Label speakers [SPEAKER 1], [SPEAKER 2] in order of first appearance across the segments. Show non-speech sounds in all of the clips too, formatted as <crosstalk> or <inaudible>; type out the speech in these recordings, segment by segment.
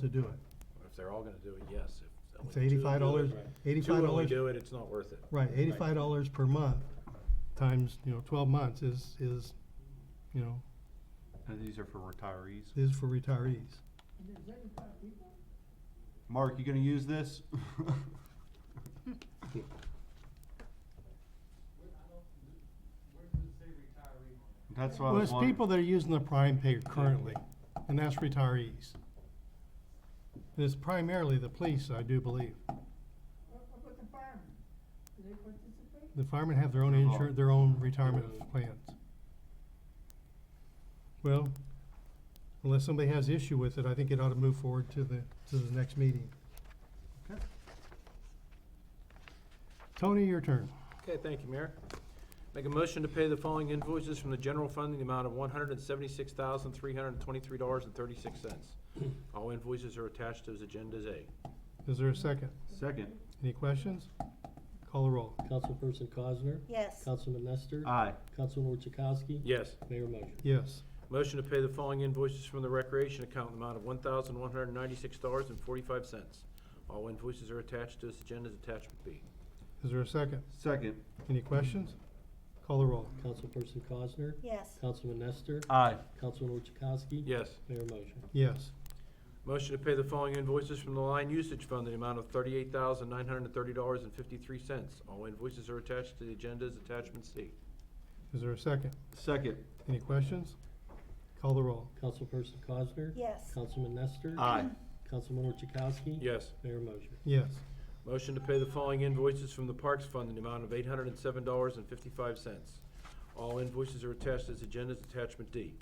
[SPEAKER 1] to do it.
[SPEAKER 2] If they're all gonna do it, yes. If only
[SPEAKER 1] It's
[SPEAKER 2] two do
[SPEAKER 1] eighty-five dollars,
[SPEAKER 2] it- Two
[SPEAKER 1] eighty-five
[SPEAKER 2] only
[SPEAKER 1] dollars,
[SPEAKER 2] do it, it's not worth it.
[SPEAKER 1] right, eighty-five dollars per month, times, you know, twelve months is, is, you know,
[SPEAKER 3] And these are for retirees.
[SPEAKER 1] is for retirees.
[SPEAKER 3] Mark, you gonna use this? <laughs> That's what I
[SPEAKER 1] Well, it's
[SPEAKER 3] was
[SPEAKER 1] people
[SPEAKER 3] wondering.
[SPEAKER 1] that are using the prime pay currently, and that's retirees. And It's primarily the police, I do believe. The firemen have their own
[SPEAKER 3] Oh.
[SPEAKER 1] insur, their own retirement
[SPEAKER 3] Uh,
[SPEAKER 1] plans. Well, unless somebody has issue with it, I think it ought to move forward to the, to the next meeting.
[SPEAKER 3] Okay.
[SPEAKER 1] Tony, your turn.
[SPEAKER 2] Okay, thank you, Mayor. Make a motion to pay the following invoices from the general fund in the amount of one hundred and seventy-six thousand, three hundred and twenty-three dollars and thirty-six cents. All invoices are attached to agendas A.
[SPEAKER 1] Is there a second?
[SPEAKER 3] Second,
[SPEAKER 1] Any questions? Call the roll.
[SPEAKER 4] Councilperson Cosner?
[SPEAKER 5] Yes,
[SPEAKER 4] Councilman Nestor?
[SPEAKER 3] aye,
[SPEAKER 4] Councilor Chakowski?
[SPEAKER 2] Yes.
[SPEAKER 4] Mayor motion.
[SPEAKER 1] Yes.
[SPEAKER 2] Motion to pay the following invoices from the recreation account in the amount of one thousand, one hundred and ninety-six dollars and forty-five cents. All invoices are attached to this agenda's attachment B.
[SPEAKER 1] Is there a second?
[SPEAKER 3] second,
[SPEAKER 1] Any questions? Call the roll.
[SPEAKER 4] Councilperson Cosner?
[SPEAKER 5] yes,
[SPEAKER 4] Councilman Nestor?
[SPEAKER 3] aye,
[SPEAKER 4] Councilor Chakowski?
[SPEAKER 2] Yes.
[SPEAKER 4] Mayor motion.
[SPEAKER 1] Yes.
[SPEAKER 2] Motion to pay the following invoices from the line usage fund in the amount of thirty-eight thousand nine hundred and thirty dollars and fifty-three cents. All invoices are attached to the agenda's attachment C.
[SPEAKER 1] Is there a second?
[SPEAKER 3] second,
[SPEAKER 1] Any questions? Call the roll.
[SPEAKER 4] Councilperson Cosner?
[SPEAKER 5] yes,
[SPEAKER 4] Councilman Nestor?
[SPEAKER 3] aye,
[SPEAKER 4] Councilor Chakowski?
[SPEAKER 2] Yes.
[SPEAKER 4] Mayor motion.
[SPEAKER 1] Yes.
[SPEAKER 2] Motion to pay the following invoices from the parks fund in the amount of eight hundred and seven dollars and fifty-five cents. All invoices are attached to the agenda's attachment D.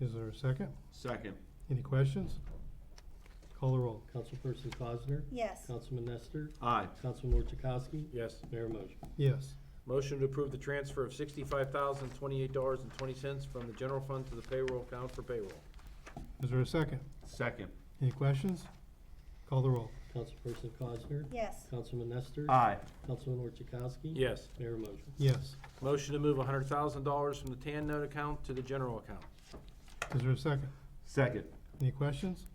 [SPEAKER 1] Is there a second?
[SPEAKER 3] second,
[SPEAKER 1] Any questions? Call the roll.
[SPEAKER 4] Councilperson Cosner?
[SPEAKER 5] yes,
[SPEAKER 4] Councilman Nestor?
[SPEAKER 3] aye,
[SPEAKER 4] Councilor Chakowski?
[SPEAKER 2] Yes.
[SPEAKER 4] Mayor motion.
[SPEAKER 1] Yes.
[SPEAKER 2] Motion to approve the transfer of sixty-five thousand twenty-eight dollars and twenty cents from the general fund to the payroll account for payroll.
[SPEAKER 1] Is there a second?
[SPEAKER 3] second,
[SPEAKER 1] Any questions? Call the roll.
[SPEAKER 4] Councilperson Cosner?
[SPEAKER 5] yes,
[SPEAKER 4] Councilman Nestor?
[SPEAKER 3] aye,
[SPEAKER 4] Councilor Chakowski?
[SPEAKER 2] Yes.
[SPEAKER 4] Mayor motion.
[SPEAKER 1] Yes.
[SPEAKER 2] Motion to move hundred thousand dollars from the TAN note account to the general account.
[SPEAKER 1] Is there a second?
[SPEAKER 3] second,
[SPEAKER 1] Any questions?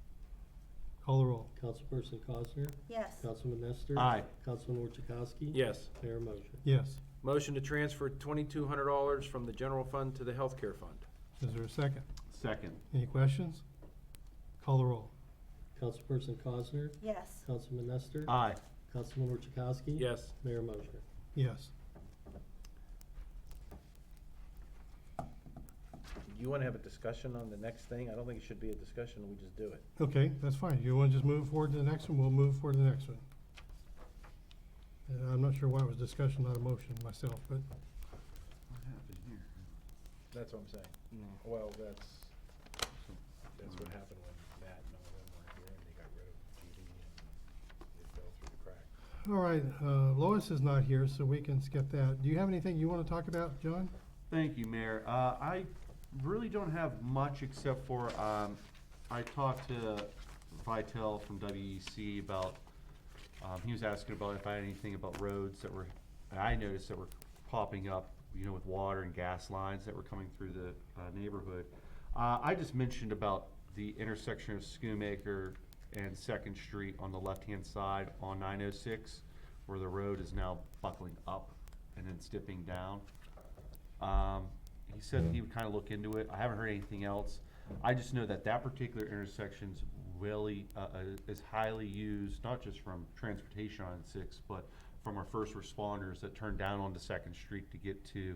[SPEAKER 1] Call the roll.
[SPEAKER 4] Councilperson Cosner?
[SPEAKER 5] yes,
[SPEAKER 4] Councilman Nestor?
[SPEAKER 3] aye,
[SPEAKER 4] Councilor Chakowski?
[SPEAKER 2] Yes.
[SPEAKER 4] Mayor motion.
[SPEAKER 1] Yes.
[SPEAKER 2] Motion to transfer twenty-two hundred dollars from the general fund to the healthcare fund.
[SPEAKER 1] Is there a second?
[SPEAKER 3] second,
[SPEAKER 1] Any questions? Call the roll.
[SPEAKER 4] Councilperson Cosner?
[SPEAKER 5] yes,
[SPEAKER 4] Councilman Nestor?
[SPEAKER 3] aye,
[SPEAKER 4] Councilman Chakowski?
[SPEAKER 2] Yes.
[SPEAKER 4] Mayor motion.
[SPEAKER 1] Yes.
[SPEAKER 2] You wanna have a discussion on the next thing? I don't think it should be a discussion, we just do it.
[SPEAKER 1] Okay, that's fine. You want to just move forward to the next one? We'll move forward to the next one. Uh, I'm not sure why it was discussion, not a motion myself, but
[SPEAKER 2] That's what I'm saying. Well, that's, that's what happened when Matt and all of them weren't here and they got rid of GD and it fell through the crack.
[SPEAKER 1] All right, uh, Lois is not here, so we can skip that. Do you have anything you want to talk about, John?
[SPEAKER 3] Thank you, Mayor. Uh, I really don't have much except for, um, I talked to Vitel from WEC about, um, he was asking about if I had anything about roads that were, that I noticed that were popping up, you know, with water and gas lines that were coming through the, uh, neighborhood. Uh, I just mentioned about the intersection of Schoonmaker and Second Street on the left-hand side on nine oh six, where the road is now buckling up and then dipping down. Um, he said he would kind of look into it. I haven't heard anything else. I just know that that particular intersection's really, uh, uh, is highly used, not just from transportation on six, but from our first responders that turn down onto Second Street to get to,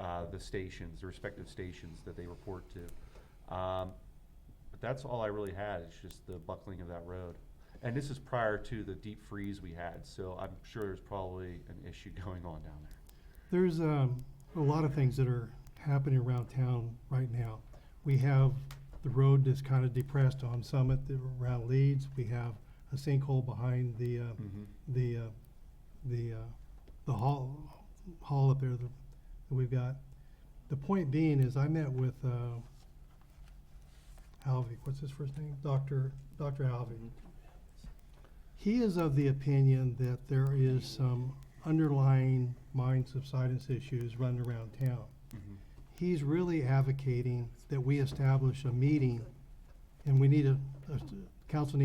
[SPEAKER 3] uh, the stations, the respective stations that they report to. Um, but that's all I really had, is just the buckling of that road. And this is prior to the deep freeze we had, so I'm sure there's probably an issue <laughs> going on down there.
[SPEAKER 1] There's um, a lot of things that are happening around town right now. We have the road that's kind of depressed on Summit around Leeds. We have a sinkhole behind the uh, the, uh, the, uh, the hall, hall up there that that we've got. The point being is I met with, uh, Halvey, what's his first name? Dr., Dr. Halvey. He is of the opinion that there is some underlying mine subsidence issues running around town.
[SPEAKER 3] Mhm.
[SPEAKER 1] He's really advocating that we establish a meeting, and we need a, a council needs